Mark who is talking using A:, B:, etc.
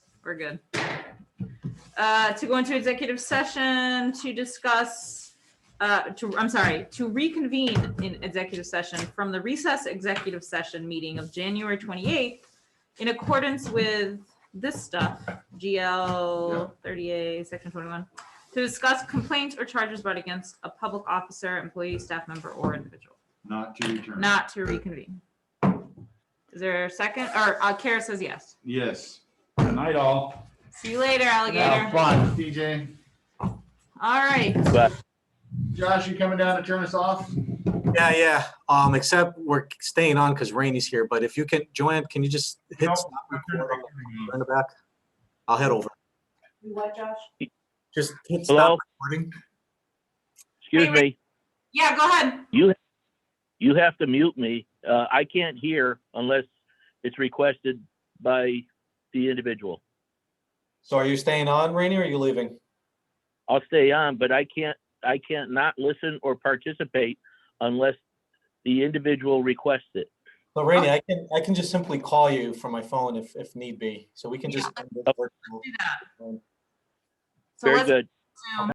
A: we're good. Uh, to go into executive session to discuss, uh, to, I'm sorry, to reconvene in executive session from the recess executive session meeting of January twenty-eighth in accordance with this stuff, GL thirty-eight, section twenty-one, to discuss complaints or charges brought against a public officer, employee, staff member, or individual,
B: not to return.
A: not to reconvene. Is there a second? Or, uh, Kara says yes.
B: Yes.
C: Good night, all.
A: See you later,
B: Have
A: alligator.
B: fun, DJ.
A: All right.
B: Josh, you coming down to turn us off?
D: Yeah, yeah. Um, except we're staying on because Rainey's here, but if you can, Joanne, can you just hit
B: No,
D: stop recording in the back? I'll head over.
E: What, Josh?
D: Just hit
F: Hello?
D: stop recording.
F: Excuse
A: Wait,
F: me,
A: Yeah, go ahead.
F: you have to mute me. Uh, I can't hear unless it's requested by the individual.
D: So are you staying on, Rainey, or are you leaving?
F: I'll stay on, but I can't, I can't not listen or participate unless the individual requests it.
D: So Rainey, I can, I can just simply call you from my phone if, if need be. So we can just.
F: do
A: So
F: Very
A: let's
F: good.
A: zoom.